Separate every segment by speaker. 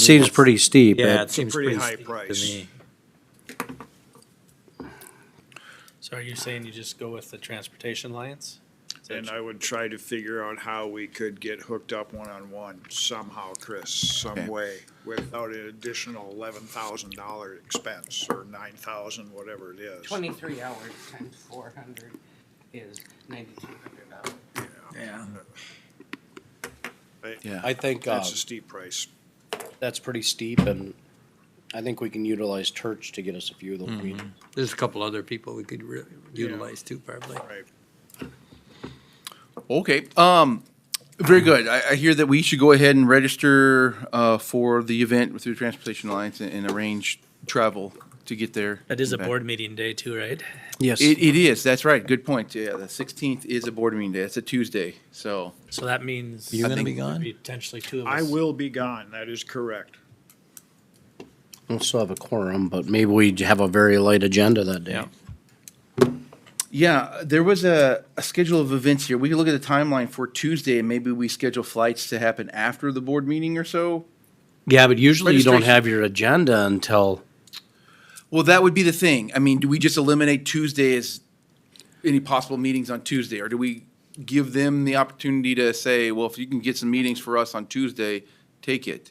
Speaker 1: seems pretty steep.
Speaker 2: Yeah,
Speaker 1: It-
Speaker 2: it seems
Speaker 3: pretty
Speaker 2: pretty
Speaker 3: high
Speaker 2: steep to
Speaker 3: price.
Speaker 2: me.
Speaker 4: So are you saying you just go with the transportation alliance? Is that
Speaker 3: And I would try to figure out how we could get hooked up one-on-one somehow, Chris, some
Speaker 5: Okay.
Speaker 3: way, without an additional eleven thousand dollar expense, or nine thousand, whatever it is.
Speaker 6: Twenty-three hours times four hundred is ninety-two hundred dollars.
Speaker 2: Yeah.
Speaker 1: I think uh,
Speaker 3: That's a steep price.
Speaker 1: that's pretty steep, and I think we can utilize church to get us a few of those meetings.
Speaker 7: There's a couple other people we could re-
Speaker 3: Yeah.
Speaker 7: utilize too, probably.
Speaker 5: Okay, um, very good. I, I hear that we should go ahead and register, uh, for the event through Transportation Alliance and, and arrange travel to get there.
Speaker 4: That is a
Speaker 5: and back.
Speaker 4: board meeting day too, right?
Speaker 1: Yes.
Speaker 5: It, it is, that's right, good point. Yeah, the sixteenth is a board meeting day, it's a Tuesday, so.
Speaker 4: So that means.
Speaker 7: You
Speaker 5: I
Speaker 7: gonna
Speaker 5: think
Speaker 7: be gone?
Speaker 4: Potentially two of us.
Speaker 3: I will be gone, that is correct.
Speaker 1: We'll still have a quorum, but maybe we have a very light agenda that day.
Speaker 7: Yeah.
Speaker 5: Yeah, there was a, a schedule of events here. We could look at the timeline for Tuesday and maybe we schedule flights to happen after the board meeting or so.
Speaker 1: Yeah, but usually you don't
Speaker 5: Registration-
Speaker 1: have your agenda until,
Speaker 5: Well, that would be the thing. I mean, do we just eliminate Tuesday as any possible meetings on Tuesday? Or do we give them the opportunity to say, well, if you can get some meetings for us on Tuesday, take it?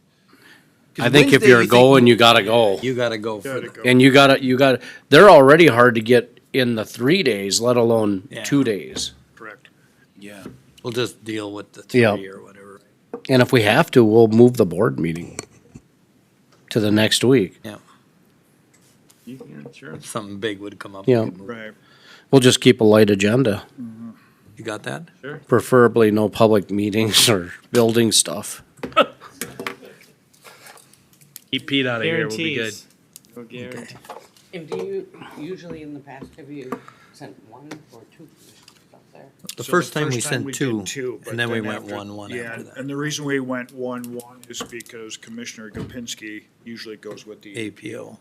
Speaker 5: 'Cause
Speaker 1: I think if
Speaker 5: Wednesday,
Speaker 1: you're
Speaker 5: you think-
Speaker 1: going, you gotta go.
Speaker 7: You gotta go for
Speaker 3: Gotta
Speaker 7: the,
Speaker 3: go.
Speaker 1: And you gotta, you gotta, they're already hard to get in the three days, let alone
Speaker 7: Yeah.
Speaker 1: two days.
Speaker 3: Correct.
Speaker 5: Yeah.
Speaker 7: we'll just deal with the
Speaker 1: Yeah.
Speaker 7: three or whatever.
Speaker 1: And if we have to, we'll move the board meeting to the next week.
Speaker 7: Yeah,
Speaker 5: Sure.
Speaker 7: if something big would come up.
Speaker 1: Yeah.
Speaker 7: we could move.
Speaker 3: Right.
Speaker 1: We'll just keep a light agenda,
Speaker 7: You got that?
Speaker 1: preferably no public meetings or building stuff.
Speaker 8: Keep Pete out of here. We'll be good.
Speaker 4: Guarantees.
Speaker 6: And do you, usually in the past, have you sent one or two commissioners up there?
Speaker 7: The
Speaker 3: So
Speaker 7: first time we
Speaker 3: did
Speaker 7: sent two,
Speaker 3: but
Speaker 7: and then we went
Speaker 3: after-
Speaker 7: one, one
Speaker 3: yeah,
Speaker 7: after that.
Speaker 3: And the reason we went one, one is because Commissioner Gopinski usually goes with the
Speaker 7: APO.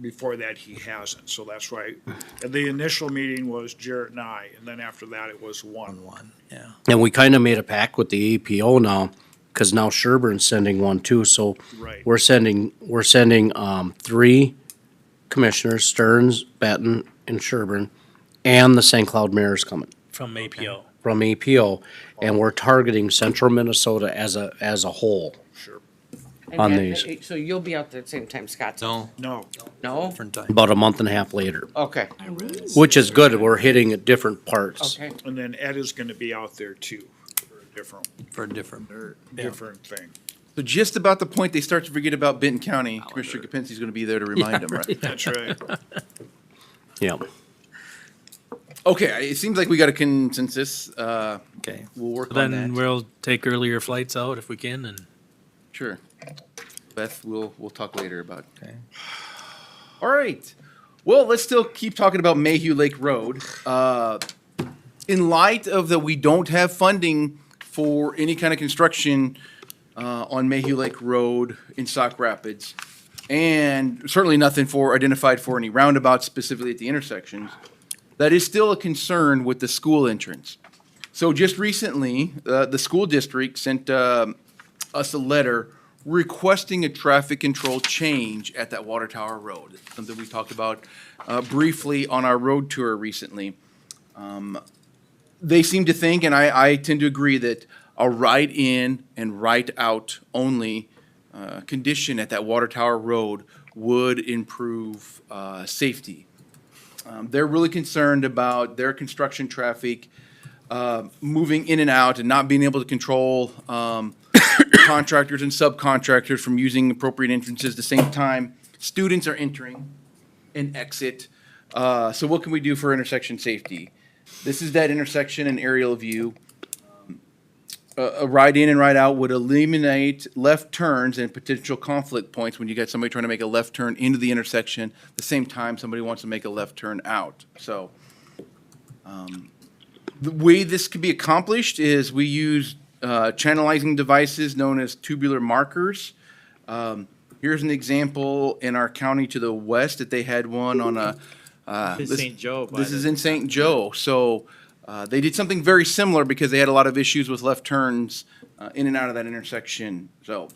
Speaker 3: before that, he hasn't, so that's why, and the initial meeting was Jarrett and I, and then after that, it was one.
Speaker 7: one, yeah.
Speaker 1: And we kind of made a pact with the APO now, because now Sherburne's sending one too, so
Speaker 3: Right.
Speaker 1: we're sending, we're sending, um, three commissioners, Stearns, Benton, and Sherburne, and the St. Cloud mayor's coming
Speaker 4: From APO.
Speaker 1: from APO, and we're targeting central Minnesota as a, as a whole.
Speaker 3: Sure.
Speaker 6: And
Speaker 1: On
Speaker 6: that-
Speaker 1: these.
Speaker 6: So you'll be out there at the same time Scott's?
Speaker 7: No,
Speaker 3: No,
Speaker 6: No?
Speaker 7: different time.
Speaker 1: about a month and a half later,
Speaker 6: Okay,
Speaker 1: which is good. We're hitting at different parts.
Speaker 6: okay.
Speaker 3: and then Ed is gonna be out there too, for a different,
Speaker 7: for a different.
Speaker 3: or different thing.
Speaker 5: So just about the point they start to forget about Benton County,
Speaker 1: Oh,
Speaker 5: Commissioner Kapinski's going to be there to remind them, right?
Speaker 3: That's right.
Speaker 1: Yeah.
Speaker 5: Okay, I- it seems like we got a consensus. Uh,
Speaker 7: Okay.
Speaker 5: we'll work on
Speaker 8: Then
Speaker 5: that.
Speaker 8: we'll take earlier flights out if we can and
Speaker 5: Sure. Beth, we'll, we'll talk later about.
Speaker 7: Okay.
Speaker 5: All right. Well, let's still keep talking about Mayhew Lake Road. Uh, in light of that, we don't have funding for any kind of construction uh, on Mayhew Lake Road in Sock Rapids, and certainly nothing for identified for any roundabouts specifically at the intersections. That is still a concern with the school entrance. So just recently, uh, the school district sent um, us a letter requesting a traffic control change at that Water Tower Road. It's Something we talked about uh, briefly on our road tour recently. Um, They seem to think, and I, I tend to agree, that a right in and right out only uh, condition at that Water Tower Road would improve uh, safety. Um, They're really concerned about their construction traffic uh, moving in and out and not being able to control um, contractors and subcontractors from using appropriate entrances at the same time. Students are entering and exit. Uh, So what can we do for intersection safety? This is that intersection and aerial view. Um, A a right in and right out would eliminate left turns and potential conflict points when you got somebody trying to make a left turn into the intersection, the same time somebody wants to make a left turn out. So the way this could be accomplished is we use uh, channelizing devices known as tubular markers. Um, Here's an example in our county to the west that they had one on a. uh,
Speaker 8: This is
Speaker 5: this-
Speaker 8: St. Joe Oh, by
Speaker 5: This
Speaker 8: the-
Speaker 5: is in St. Joe. So uh, they did something very similar because they had a lot of issues with left turns uh, in and out of that intersection. So